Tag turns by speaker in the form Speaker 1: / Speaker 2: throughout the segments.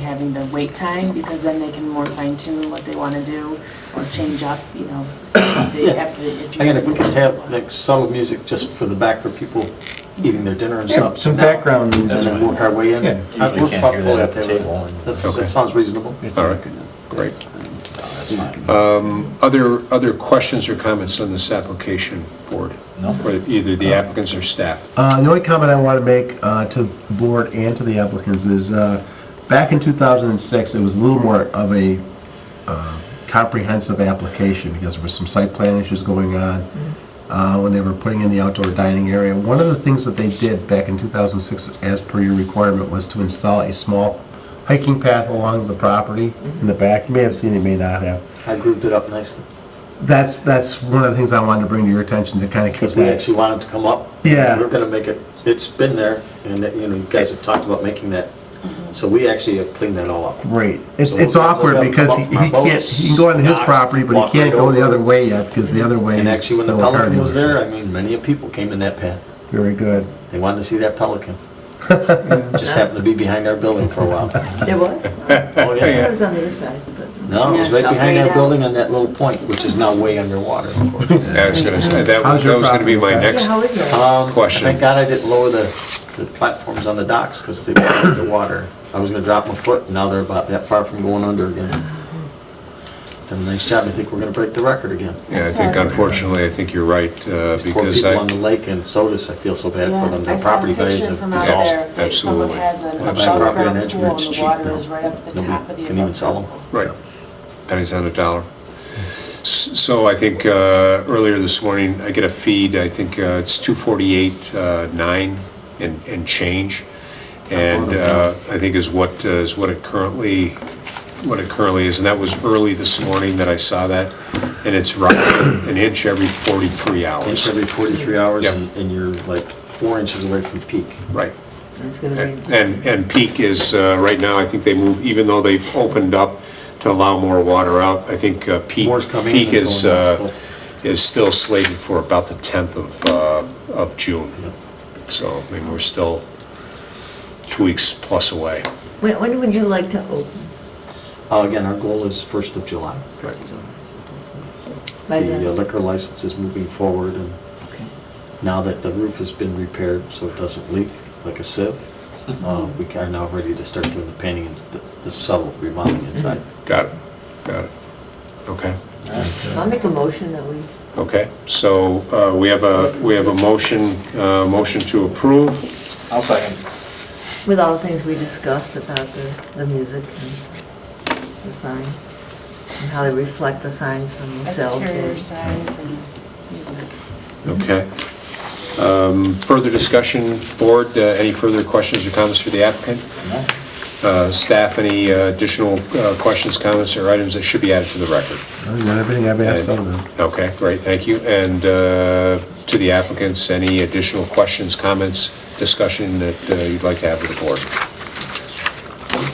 Speaker 1: having the wait time, because then they can more fine tune what they want to do or change up, you know. they-
Speaker 2: Yeah.
Speaker 1: after- if you-
Speaker 2: Again, if we could have like solid music just for the back for people eating their dinner and stuff.
Speaker 3: Some background
Speaker 2: And
Speaker 3: music.
Speaker 2: then work our way in.
Speaker 3: Yeah.
Speaker 2: I-
Speaker 4: Usually
Speaker 2: we're
Speaker 4: can't hear that
Speaker 2: fully
Speaker 4: at the
Speaker 2: okay with
Speaker 4: table.
Speaker 2: that. That's- That sounds reasonable. Uh,
Speaker 5: All right, great. Other, other questions or comments on this application, board?
Speaker 4: No.
Speaker 5: For Either the applicants or staff?
Speaker 3: Uh, The only comment I want to make uh, to the board and to the applicants is, uh, back in 2006, it was a little more of a uh, comprehensive application because there were some site plan issues going on uh, when they were putting in the outdoor dining area. One of the things that they did back in 2006, as per your requirement, was to install a small hiking path along the property
Speaker 2: Mm-hmm.
Speaker 3: in the back. You may have seen it, you may not have.
Speaker 2: I grouped it up nicely,
Speaker 3: That's, that's one of the things I wanted to bring to your attention to kind of keep
Speaker 2: because we
Speaker 3: that.
Speaker 2: actually wanted to come up.
Speaker 3: Yeah.
Speaker 2: We're gonna make it, it's been there, and, that, you know, you guys have talked about making that, so we actually have cleaned that all up.
Speaker 3: Great. It's,
Speaker 2: So
Speaker 3: it's
Speaker 2: we'll have to
Speaker 3: awkward
Speaker 2: come
Speaker 3: because
Speaker 2: up
Speaker 3: he
Speaker 2: from our
Speaker 3: he can't,
Speaker 2: boats,
Speaker 3: he can go on his
Speaker 2: dock,
Speaker 3: property, but
Speaker 2: walk
Speaker 3: he can't
Speaker 2: right
Speaker 3: go the
Speaker 2: over.
Speaker 3: other way yet because the other way
Speaker 2: And
Speaker 3: is
Speaker 2: actually, when the
Speaker 3: still a
Speaker 2: Pelican
Speaker 3: carnival.
Speaker 2: was there, I mean, many of people came in that path.
Speaker 3: Very good.
Speaker 2: They wanted to see that Pelican. Just happened to be behind our building for a while.
Speaker 6: There was?
Speaker 2: Oh,
Speaker 6: It
Speaker 2: yeah.
Speaker 6: was on the other side, but.
Speaker 2: No, it was right
Speaker 1: Yeah,
Speaker 2: behind
Speaker 1: straight
Speaker 2: our
Speaker 1: out.
Speaker 2: building on that little point, which is now way underwater, of course.
Speaker 5: I was gonna say, that was
Speaker 3: How's your
Speaker 5: that was gonna be my
Speaker 3: property,
Speaker 6: Yeah,
Speaker 5: next
Speaker 1: Oh,
Speaker 6: how is that?
Speaker 2: Um,
Speaker 5: Question.
Speaker 2: Thank God I didn't lower the, the platforms on the docks because they were under the water. I was gonna drop my foot, and now they're about that far from going under again. Done a nice job. I think we're gonna break the record again.
Speaker 5: Yeah, I think unfortunately, I think you're right, uh,
Speaker 2: There's Poor
Speaker 5: because
Speaker 2: people on the
Speaker 5: I,
Speaker 2: lake in Sodas, I feel so bad
Speaker 1: Yeah,
Speaker 2: for them.
Speaker 1: I
Speaker 2: Their
Speaker 1: saw a
Speaker 2: property values
Speaker 1: picture
Speaker 2: have
Speaker 1: from out
Speaker 2: dissolved.
Speaker 1: there. They- someone
Speaker 5: Absolutely.
Speaker 1: has an
Speaker 5: Well, my
Speaker 1: above
Speaker 2: property in
Speaker 1: ground pool
Speaker 2: Edgewood,
Speaker 1: and
Speaker 2: it's
Speaker 1: the
Speaker 2: cheap
Speaker 1: water
Speaker 2: now.
Speaker 1: is right up to the
Speaker 2: Nobody
Speaker 1: top of the
Speaker 2: can even
Speaker 1: above
Speaker 2: sell
Speaker 1: ground
Speaker 2: them.
Speaker 1: pool.
Speaker 5: right, pennies on a dollar. S- So I think uh, earlier this morning, I get a feed, I think uh, it's 248, uh, 9 and, and change. And uh, I think is what, uh, is what it currently, what it currently is. And that was early this morning that I saw that. And it's rising an inch every 43
Speaker 2: Inch
Speaker 5: hours.
Speaker 2: every 43 hours
Speaker 5: Yep.
Speaker 2: and and you're like four inches away from peak.
Speaker 5: Right.
Speaker 6: It's gonna
Speaker 5: Eh,
Speaker 6: rain. soon.
Speaker 5: And, and peak is, uh, right now, I think they move, even though they've opened up to allow more water out, I think uh, peak,
Speaker 2: More's coming in,
Speaker 5: peak
Speaker 2: it's
Speaker 5: is,
Speaker 2: going down
Speaker 5: uh,
Speaker 2: still.
Speaker 5: is still slated for about the 10th of, uh, of June. So, I mean, we're still two weeks plus away.
Speaker 6: When, when would you like to open?
Speaker 2: Uh, Again, our goal is 1st of July.
Speaker 6: By then?
Speaker 2: The uh, liquor license is moving forward and
Speaker 6: Okay.
Speaker 2: now that the roof has been repaired so it doesn't leak like a sieve, uh, we are now ready to start doing the painting and the- the subtle remodeling inside.
Speaker 6: Mm-hmm.
Speaker 5: Got it, got it. Okay,
Speaker 6: I'll make a motion that we,
Speaker 5: okay. So, uh, we have a, we have a motion, uh, motion to approve.
Speaker 4: I'll second.
Speaker 6: with all the things we discussed about the, the music and the signs, and how they reflect the signs from themselves.
Speaker 1: Exterior signs and music.
Speaker 5: Okay. Um, Further discussion, board, uh, any further questions or comments for the applicant? Uh, Staff, any uh, additional uh, questions, comments, or items that should be added to the record?
Speaker 3: Oh, you got everything I've asked of them.
Speaker 5: Okay, great, thank you. And uh, to the applicants, any additional questions, comments, discussion that uh, you'd like to have with the board?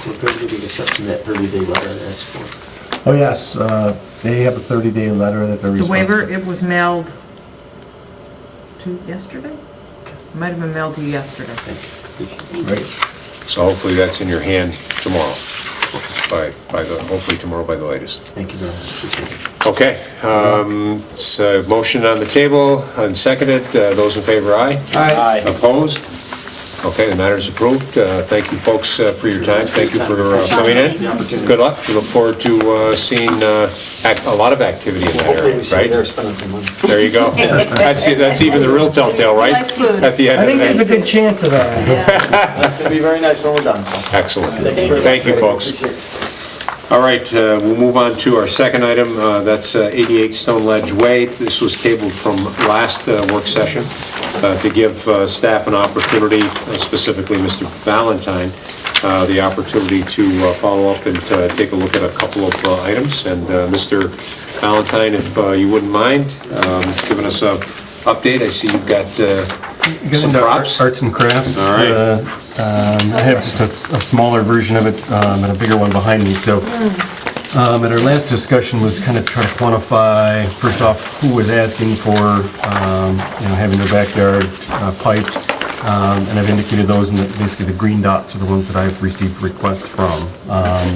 Speaker 2: We're going to be accepting that 30-day letter I asked for.
Speaker 3: Oh, yes, uh, they have a 30-day letter that they're
Speaker 7: The waiver,
Speaker 3: responsible.
Speaker 7: it was mailed to yesterday? It Might have been mailed to you yesterday.
Speaker 2: Thank you. Appreciate it.
Speaker 3: Great.
Speaker 5: So hopefully that's in your hand tomorrow, by, by the, hopefully tomorrow by the latest.
Speaker 2: Thank you very much. Appreciate it.
Speaker 5: Okay, um, it's a motion on the table, unseconded, Uh, those in favor, aye?
Speaker 4: Aye.
Speaker 5: Opposed? Okay, the matter is approved. Uh, Thank you, folks, uh, for your time. Thank you for uh, coming in. Good luck. We look forward to uh, seeing uh, act- a lot of activity in that
Speaker 2: Hopefully
Speaker 5: area,
Speaker 2: we see there
Speaker 5: right?
Speaker 2: spending some money.
Speaker 5: There you go. That's, that's even the real telltale, right?
Speaker 1: Like food.
Speaker 5: At the end
Speaker 3: I think
Speaker 5: of
Speaker 3: there's a
Speaker 5: the day.
Speaker 3: good chance of that.
Speaker 2: That's going to be very nice when we're done, so.
Speaker 5: Excellent.
Speaker 2: very much.
Speaker 5: Thank you, folks.
Speaker 2: Appreciate it.
Speaker 5: All right, uh, we'll move on to our second item, uh, that's uh, 88 Stone Ledge Way. This was tabled from last uh, work session uh, to give uh, staff an opportunity, uh, specifically Mr. Valentine, uh, the opportunity to uh, follow up and uh, take a look at a couple of uh, items. And uh, Mr. Valentine, if uh, you wouldn't mind um, giving us a update, I see you've got uh,
Speaker 8: Get
Speaker 5: some
Speaker 8: into
Speaker 5: props.
Speaker 8: Arts and crafts.
Speaker 5: All right.
Speaker 8: Uh, um, I have just a s- a smaller version of it um, and a bigger one behind me, so. um, At our last discussion was kind of trying to quantify, first off, who was asking for, um, you know, having their backyard uh, piped,
Speaker 3: Um, And I've indicated those, and basically the green dots are the ones that I've received requests from. Um,